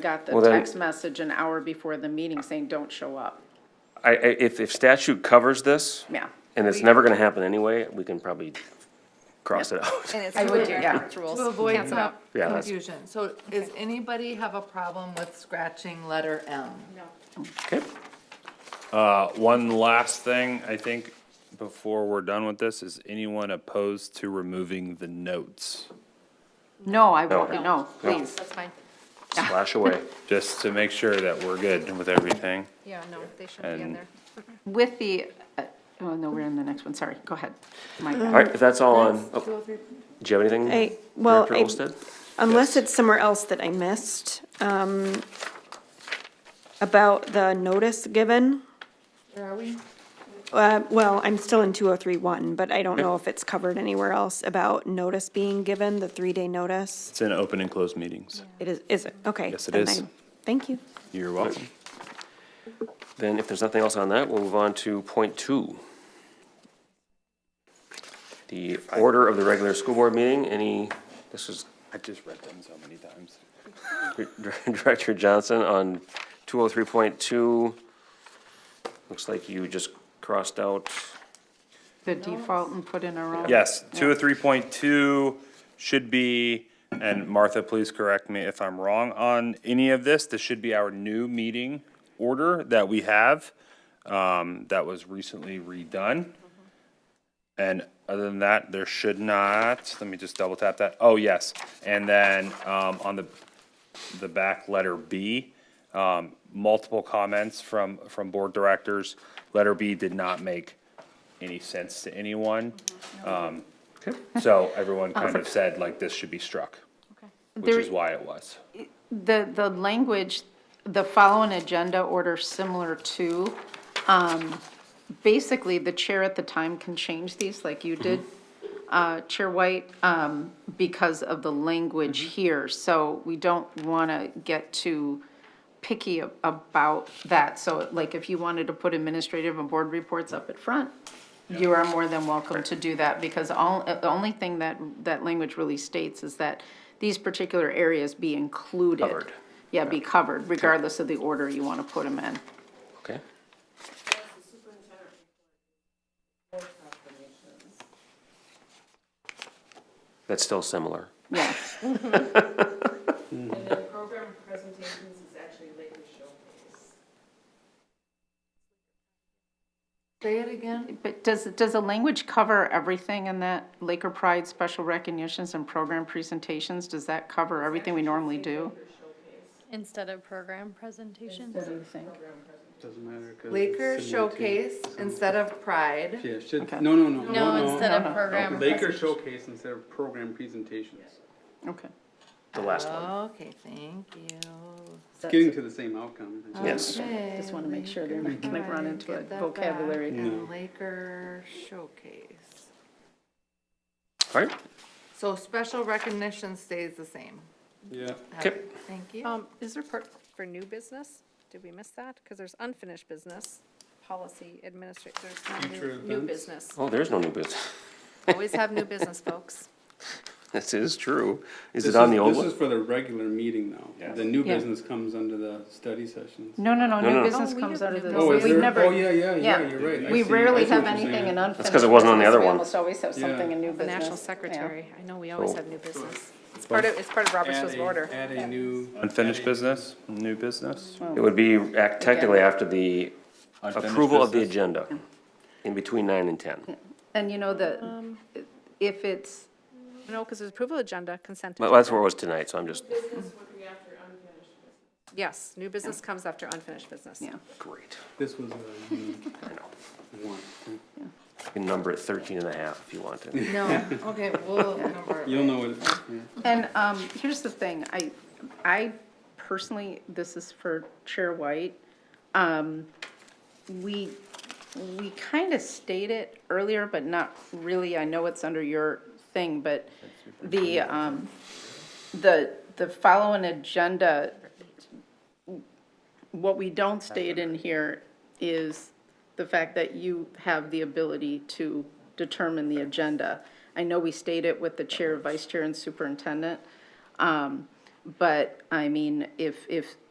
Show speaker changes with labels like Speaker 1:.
Speaker 1: Got the
Speaker 2: Well, then-
Speaker 1: text message an hour before the meeting saying, don't show up.
Speaker 2: I, I, if, if statute covers this.
Speaker 1: Yeah.
Speaker 2: And it's never gonna happen anyway, we can probably cross it out.
Speaker 3: And it's
Speaker 1: I would do,
Speaker 3: clear
Speaker 1: yeah.
Speaker 3: it's rules.
Speaker 4: To avoid
Speaker 3: Cancel
Speaker 4: some
Speaker 3: out.
Speaker 2: Yeah, that's-
Speaker 4: confusion, so does anybody have a problem with scratching letter M?
Speaker 2: Okay.
Speaker 5: One last thing, I think, before we're done with this, is anyone opposed to removing the notes?
Speaker 1: No, I won't, no, please.
Speaker 3: That's fine.
Speaker 2: Slash away.
Speaker 5: Just to make sure that we're good with everything.
Speaker 3: Yeah, no, they shouldn't be in
Speaker 5: And-
Speaker 3: there.
Speaker 1: With the, uh, oh, no, we're in the next one, sorry, go ahead. My bad.
Speaker 2: All right, if that's all on, oh, do you have anything,
Speaker 6: I- well,
Speaker 2: Director
Speaker 6: I-
Speaker 2: Olsted?
Speaker 6: Unless it's somewhere else that I missed, um, about the notice given.
Speaker 4: Where are we?
Speaker 6: Uh, well, I'm still in two oh three one, but I don't know if it's covered anywhere else about notice being given, the three-day notice.
Speaker 5: It's in open and closed meetings.
Speaker 6: It is, is it? Okay.
Speaker 5: Yes, it
Speaker 6: then
Speaker 5: is.
Speaker 6: I- Thank you.
Speaker 5: You're welcome.
Speaker 2: Then if there's nothing else on that, we'll move on to point two. The order of the regular school board meeting, any, this is
Speaker 5: I've just read them so many times.
Speaker 2: Director Johnson on two oh three point two. Looks like you just crossed out,
Speaker 1: The default and put in our own.
Speaker 5: Yes, two oh three point two should be, and Martha, please correct me if I'm wrong on any of this, this should be our new meeting order that we have, um, that was recently redone. And other than that, there should not, let me just double tap that, oh, yes, and then, um, on the, the back letter B, um, multiple comments from, from board directors, letter B did not make any sense to anyone. So everyone kind of said like this should be struck, which
Speaker 1: There-
Speaker 5: is why it was.
Speaker 1: The, the language, the following agenda order similar to, um, basically, the chair at the time can change these like you did, uh, Chair White, um, because of the language here. So we don't want to get too picky a- about that. So like if you wanted to put administrative and board reports up at front, you are more than welcome to do that because all, uh, the only thing that, that language really states is that these particular areas be included.
Speaker 2: Covered.
Speaker 1: Yeah, be covered regardless of the order you want to put them in.
Speaker 2: okay? That's still similar.
Speaker 1: Yeah.
Speaker 7: And then program presentations is actually Laker Showcase.
Speaker 4: Say it again?
Speaker 1: But does, does the language cover everything in that Laker Pride special recognitions and program presentations? Does that cover everything we normally do?
Speaker 3: Instead of program presentations.
Speaker 1: What do you think?
Speaker 8: Doesn't matter. 'cause it's
Speaker 4: Laker
Speaker 8: similar to-
Speaker 4: Showcase instead of Pride.
Speaker 8: Yeah, it should,
Speaker 1: Okay.
Speaker 8: no, no, no, no,
Speaker 3: No,
Speaker 8: no.
Speaker 3: instead of program.
Speaker 8: Laker
Speaker 3: presentation.
Speaker 8: Showcase instead of program presentations.
Speaker 1: Okay.
Speaker 2: The last one.
Speaker 4: Okay, thank you.
Speaker 8: It's getting to the same outcome. I think.
Speaker 2: Yes.
Speaker 4: Okay,
Speaker 1: Just want to make sure they're not going to run into a
Speaker 4: get that
Speaker 1: vocabulary.
Speaker 4: back. And Laker Showcase.
Speaker 2: All right,
Speaker 4: So special recognition stays the same.
Speaker 8: Yeah.
Speaker 2: Okay.
Speaker 4: Thank you.
Speaker 3: Um, is there part for new business? Did we miss that? Because there's unfinished business, policy, administrative, there's
Speaker 8: Future
Speaker 3: no new, new
Speaker 8: events.
Speaker 3: business.
Speaker 2: oh, there's no new business.
Speaker 3: Always have new business, folks.
Speaker 2: This is true. Is
Speaker 8: This
Speaker 2: it on the old
Speaker 8: This
Speaker 2: one?
Speaker 8: is for the regular meeting now. The new
Speaker 1: Yeah.
Speaker 8: business comes under the study sessions.
Speaker 1: No, no, no,
Speaker 2: No, no.
Speaker 1: new business
Speaker 3: Oh, we
Speaker 1: comes
Speaker 3: have
Speaker 1: out of
Speaker 3: new
Speaker 1: the.
Speaker 3: business.
Speaker 8: Oh, is
Speaker 1: we've
Speaker 8: there,
Speaker 1: never-
Speaker 8: oh, yeah, yeah, yeah,
Speaker 1: yeah.
Speaker 8: you're right. I
Speaker 1: We
Speaker 8: see- I
Speaker 1: rarely
Speaker 8: see what
Speaker 1: have
Speaker 8: you're
Speaker 1: anything
Speaker 8: saying.
Speaker 1: in unfinished.
Speaker 2: That's 'cause it wasn't on the
Speaker 1: business.
Speaker 2: other
Speaker 1: We
Speaker 2: one.
Speaker 1: almost always have something in new
Speaker 3: The
Speaker 1: business.
Speaker 3: national
Speaker 1: Yeah.
Speaker 3: secretary, I know we always
Speaker 2: So-
Speaker 3: have new business. It's part of, it's part of Robert's
Speaker 8: Add
Speaker 3: rules of
Speaker 8: a-
Speaker 3: order.
Speaker 8: Add a new.
Speaker 5: Unfinished business, new business.
Speaker 2: It would be act technically after the approval of the agenda, in between nine and 10.
Speaker 1: And you know, the,
Speaker 3: Um,
Speaker 1: if it's,
Speaker 3: No, because there's approval agenda, consent.
Speaker 2: Well, that's
Speaker 3: agenda.
Speaker 2: where it was tonight, so I'm just,
Speaker 7: Business would be after unfinished business.
Speaker 3: Yes, new business comes after unfinished business.
Speaker 1: yeah.
Speaker 2: great.
Speaker 8: This was a new
Speaker 2: I know.
Speaker 8: one.
Speaker 2: You can number it 13 and a half if you want to.
Speaker 4: No, okay, we'll number it.
Speaker 8: You'll know it. yeah.
Speaker 1: And um, here's the thing, I, I personally, this is for Chair White. um, We, we kind of stated it earlier, but not really. I know it's under your thing, but the, um, the, the following agenda, what we don't state in here is the fact that you have the ability to determine the agenda. I know we state it with the chair, vice chair, and superintendent, um, But, I mean, if, if